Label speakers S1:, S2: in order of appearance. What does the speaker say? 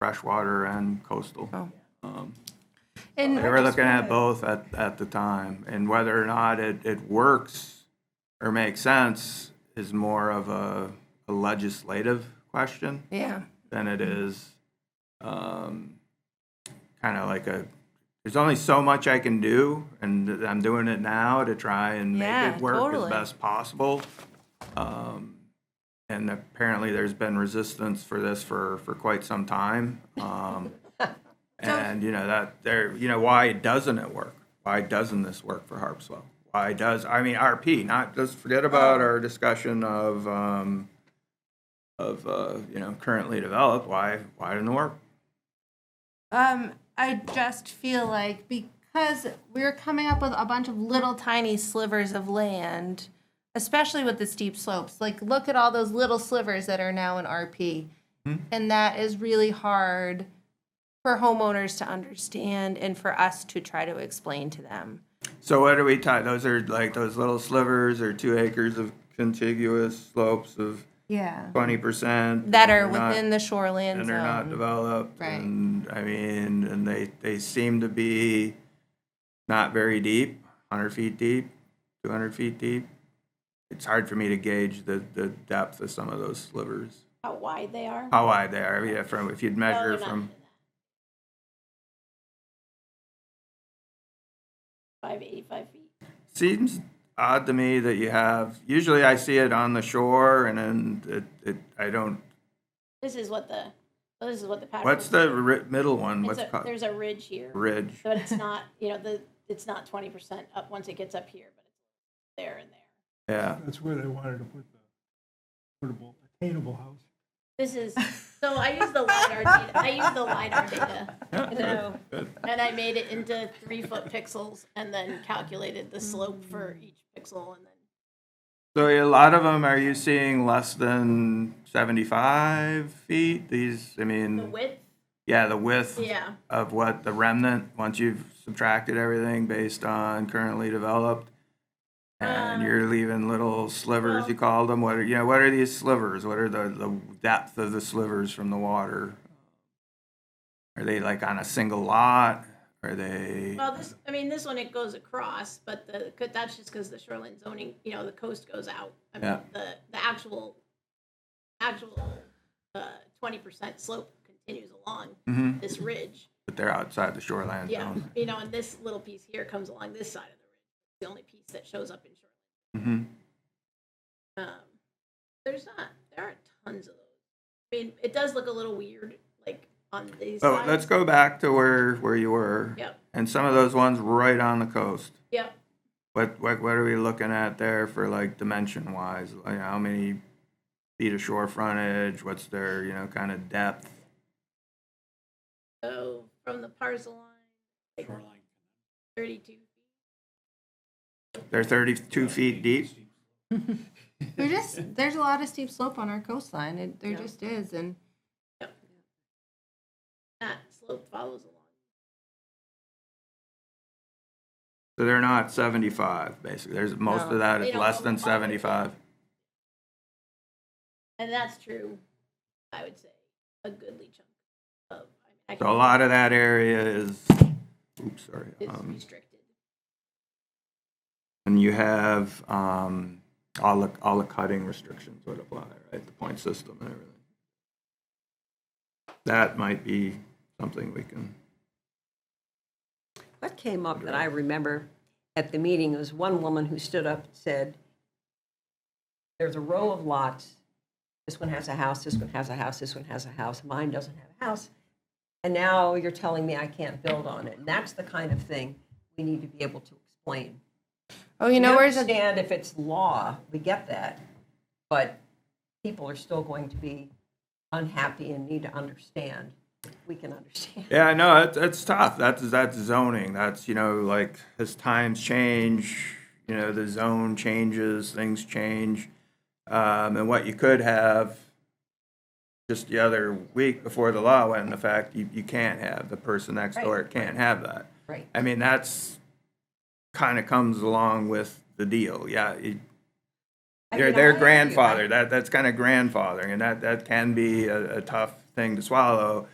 S1: freshwater and coastal.
S2: Oh. And
S1: They Um, were looking at both at, at the time, and whether or not it, it works or makes sense is more of a, a legislative question
S2: Yeah,
S1: than it
S2: Mm-hmm.
S1: is um, kind of like a, there's only so much I can do, and I'm doing it now to try and make
S2: Yeah,
S1: it work as
S2: totally.
S1: best possible. Um, And apparently, there's been resistance for this for, for quite some time. Um, And, you know, that, there, you know, why doesn't it work? Why doesn't this work for Harpswell? Why does, I mean, RP, not, just forget
S2: Oh.
S1: about our discussion of, um, of, uh, you know, currently developed, why, why didn't it work?
S2: um, I just feel like because we're coming up with a bunch of little tiny slivers of land, especially with the steep slopes. Like, look at all those little slivers that are now in RP,
S1: Hmm?
S2: and that is really hard for homeowners to understand and for us to try to explain to them.
S1: So what are we talking, those are like those little slivers or two acres of contiguous slopes of
S2: Yeah,
S1: twenty percent?
S2: that are within the shoreline
S1: And they're not
S2: zone.
S1: developed,
S2: Right.
S1: and, I mean, and they, they seem to be not very deep, hundred feet deep, two hundred feet deep. It's hard for me to gauge the, the depth of some of those slivers,
S3: how wide they are.
S1: how wide they are, yeah, from, if you'd measure
S3: not
S1: from,
S3: Five, eighty-five feet.
S1: seems odd to me that you have usually i see it on the shore and then it, it i don't
S3: This is what the, well, this is what the pattern.
S1: what's
S3: is.
S1: the ri- middle one
S3: It's
S1: what's
S3: a,
S1: it called
S3: there's a ridge here,
S1: ridge
S3: but it's not, you know, the, it's not twenty percent up once it gets up here, but it's there and there.
S1: yeah
S4: That's where they wanted to put the affordable, attainable house.
S3: This is, so I use the LiDAR data, I use the LiDAR data. And I made it into three-foot pixels and then calculated the slope for
S1: Mm.
S3: each pixel and then
S1: so a lot of them are you seeing less than 75 feet these i
S3: the
S1: mean
S3: width,
S1: yeah the width
S3: yeah.
S1: of what the remnant once you've subtracted everything based on currently developed and
S3: Um,
S1: you're leaving little slivers
S3: well-
S1: you call them what are you know what are these slivers what are the, the depth of the slivers from the water are they like on a single lot are they
S3: Well, this, I mean, this one, it goes across, but the, could- that's just because the shoreline zoning, you know, the coast goes out. I mean,
S1: Yeah.
S3: the, the actual, actual uh, twenty percent slope continues along
S1: Mhm.
S3: this ridge.
S1: but they're outside the shoreline
S3: Yeah,
S1: zone
S3: you know, and this little piece here comes along this side of the ridge, the only piece that shows up in shoreline.
S1: Mhm.
S3: Um, There's not, there aren't tons of those. I mean, it does look a little weird, like on these
S1: so let's
S3: sides.
S1: go back to where where you were
S3: Yep,
S1: and some of those ones right on the coast
S3: yep.
S1: What, what, what are we looking at there for like dimension wise? Like how many feet of shore frontage? What's their, you know, kind of depth?
S3: So from the parcel line, like thirty-two feet.
S1: They're 32 feet deep.
S2: We're just there's a lot of steep slope on our coastline. It, there
S3: Yeah.
S2: just is, and
S3: that slope follows along.
S1: So they're not 75, basically. There's most
S2: No.
S1: of that
S3: They
S1: is
S3: don't
S1: less than
S3: go all the way
S1: 75.
S3: And that's true, I would say, a goodly chunk of. I mean, I
S1: So a
S3: can-
S1: lot of that area is, oops, sorry.
S3: Is
S1: Um,
S3: restricted.
S1: and you have um, all, the, all the cutting restrictions would apply, right? The point system and everything. That might be something we can.
S5: What came up that I remember at the meeting was one woman who stood up and said, There's a row of lots. This one has a house, this one has a house, this one has a house, mine doesn't have a house. And now you're telling me I can't build on it. And that's the kind of thing we need to be able to explain.
S2: oh, you know,
S5: we
S2: where's a
S5: understand if it's law, we get that. But people are still going to be unhappy and need to understand. We can understand.
S1: Yeah, no, it's, it's tough. That's that's zoning. That's you know, like as times change, you know, the zone changes, things change, um, and what you could have. Just the other week before the law went into effect, you, you can't have the person next door can't have that.
S5: Right.
S1: I mean, that's kind of comes along with the deal. Yeah, it,
S5: I
S1: they're
S5: mean,
S1: they're
S5: I agree. I-
S1: grandfathered. That that's kind of grandfathering, and that that can be a, a tough thing to swallow.